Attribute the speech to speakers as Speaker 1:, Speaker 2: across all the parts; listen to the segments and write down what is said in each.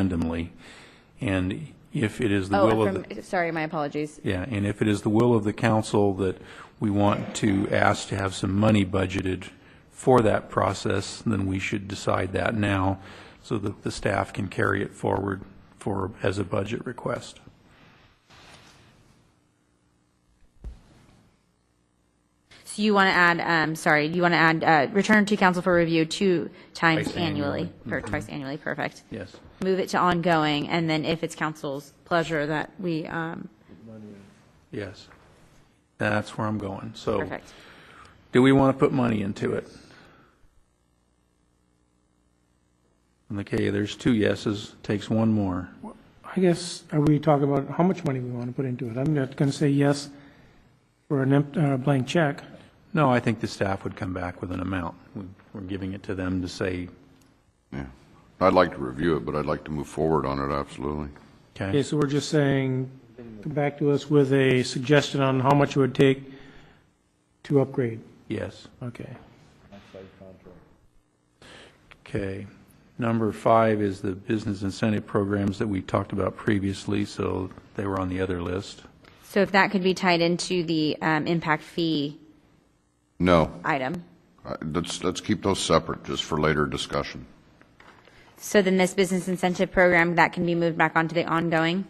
Speaker 1: randomly. And if it is the will
Speaker 2: Oh,
Speaker 1: of, the
Speaker 2: from, sorry, my apologies.
Speaker 1: yeah, and if it is the will of the council that we want to ask to have some money budgeted for that process, then we should decide that now so that the staff can carry it forward for, as a budget request.
Speaker 2: So you want to add, um, sorry, you want to add, uh, return to council for review two times
Speaker 1: Twice
Speaker 2: annually,
Speaker 1: annually. Mm-hmm.
Speaker 2: or twice annually, perfect.
Speaker 1: Yes.
Speaker 2: Move it to ongoing, and then if it's council's pleasure that we, um,
Speaker 1: Yes. That's where I'm going. So
Speaker 2: perfect.
Speaker 1: do we want to put money into it? Okay, there's two yeses, takes one more.
Speaker 3: I guess, are we talking about how much money we want to put into it? I'm not going to say yes for an empt, uh, blank check.
Speaker 1: No, I think the staff would come back with an amount. We- We're giving it to them to say,
Speaker 4: Yeah. I'd like to review it, but I'd like to move forward on it, absolutely.
Speaker 3: Okay,
Speaker 1: okay,
Speaker 3: so we're just saying, come back to us with a suggestion on how much it would take to upgrade.
Speaker 1: yes,
Speaker 3: Okay.
Speaker 1: okay. Number five is the business incentive programs that we talked about previously, so they were on the other list.
Speaker 2: So if that could be tied into the, um, impact fee
Speaker 4: No,
Speaker 2: item.
Speaker 4: I- let's, let's keep those separate, just for later discussion.
Speaker 2: So then this business incentive program, that can be moved back onto the ongoing?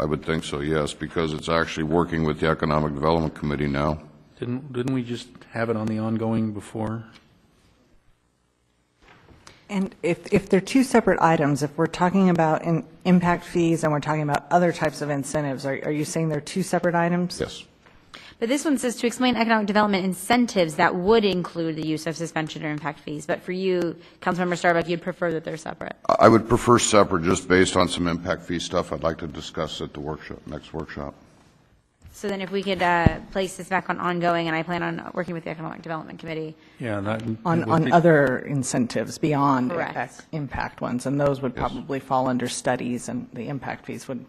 Speaker 4: I would think so, yes, because it's actually working with the Economic Development Committee now.
Speaker 1: Didn't, didn't we just have it on the ongoing before?
Speaker 5: And if, if they're two separate items, if we're talking about in, impact fees and we're talking about other types of incentives, are, are you saying they're two separate items?
Speaker 4: Yes.
Speaker 2: But this one says to explain economic development incentives that would include the use of suspension or impact fees. But for you, Councilmember Starbuck, you'd prefer that they're separate.
Speaker 4: I I would prefer separate, just based on some impact fee stuff I'd like to discuss at the workshop, next workshop.
Speaker 2: So then if we could uh, place this back on ongoing, and I plan on working with the Economic Development Committee.
Speaker 1: Yeah, that.
Speaker 5: On, on other incentives beyond
Speaker 2: Correct.
Speaker 5: impact, impact ones, and those would probably fall under studies and the impact fees would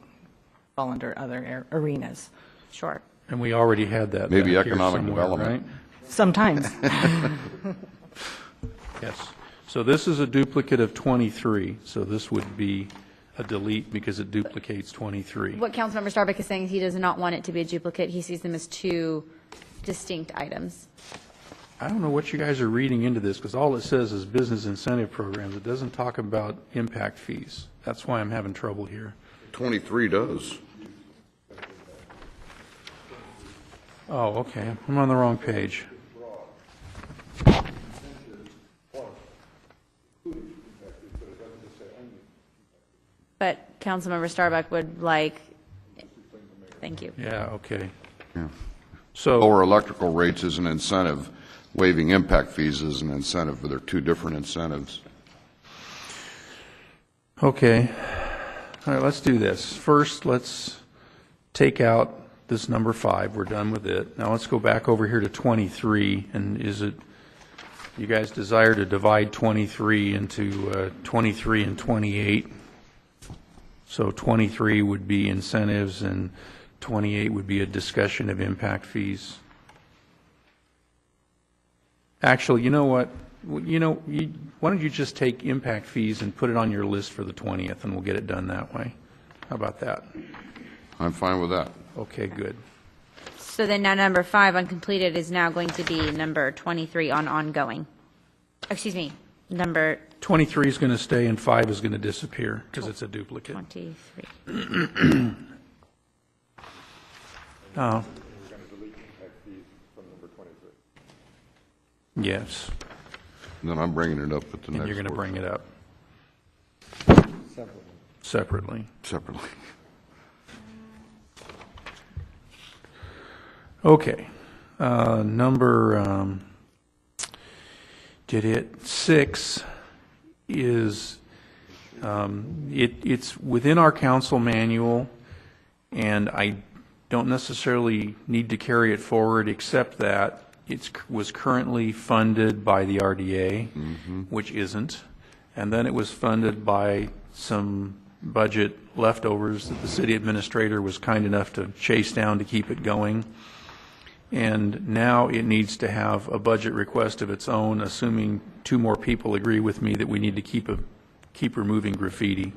Speaker 5: fall under other ar- arenas.
Speaker 2: Sure.
Speaker 1: And we already had that.
Speaker 4: Maybe
Speaker 1: back here
Speaker 4: economic
Speaker 1: somewhere,
Speaker 4: development.
Speaker 1: right?
Speaker 5: Sometimes.
Speaker 1: Yes. So this is a duplicate of 23, so this would be a delete because it duplicates 23.
Speaker 2: What Councilmember Starbuck is saying is he does not want it to be a duplicate. He sees them as two distinct items.
Speaker 1: I don't know what you guys are reading into this, because all it says is business incentive programs. It doesn't talk about impact fees. That's why I'm having trouble here.
Speaker 4: 23 does.
Speaker 1: Oh, okay, I'm on the wrong page.
Speaker 2: But Councilmember Starbuck would like, thank you.
Speaker 1: Yeah, okay.
Speaker 4: Yeah.
Speaker 1: So,
Speaker 4: Lower electrical rates is an incentive, waiving impact fees is an incentive, but they're two different incentives.
Speaker 1: okay, all right, let's do this. First, let's take out this number five, we're done with it. Now let's go back over here to 23, and is it, you guys desire to divide 23 into uh, 23 and 28? So 23 would be incentives, and 28 would be a discussion of impact fees. Actually, you know what, W- you know, you- why don't you just take impact fees and put it on your list for the 20th, and we'll get it done that way? How about that?
Speaker 4: I'm fine with that.
Speaker 1: Okay, good.
Speaker 2: So then now number five, uncompleted, is now going to be number 23 on ongoing. Excuse me, number
Speaker 1: 23 is going to stay and 5 is going to disappear because it's a duplicate.
Speaker 2: 23.
Speaker 1: Oh. Yes,
Speaker 4: Then I'm bringing it up at the next
Speaker 1: and you're going to bring
Speaker 4: workshop.
Speaker 1: it up. Separately.
Speaker 4: Separately.
Speaker 1: Okay. Uh, Number, um, did it, six is, um, it, it's within our council manual, and I don't necessarily need to carry it forward, except that it's, was currently funded by the RDA, which isn't, and then it was funded by some budget leftovers that the city administrator was kind enough to chase down to keep it going. And now it needs to have a budget request of its own, assuming two more people agree with me that we need to keep a, keep removing graffiti.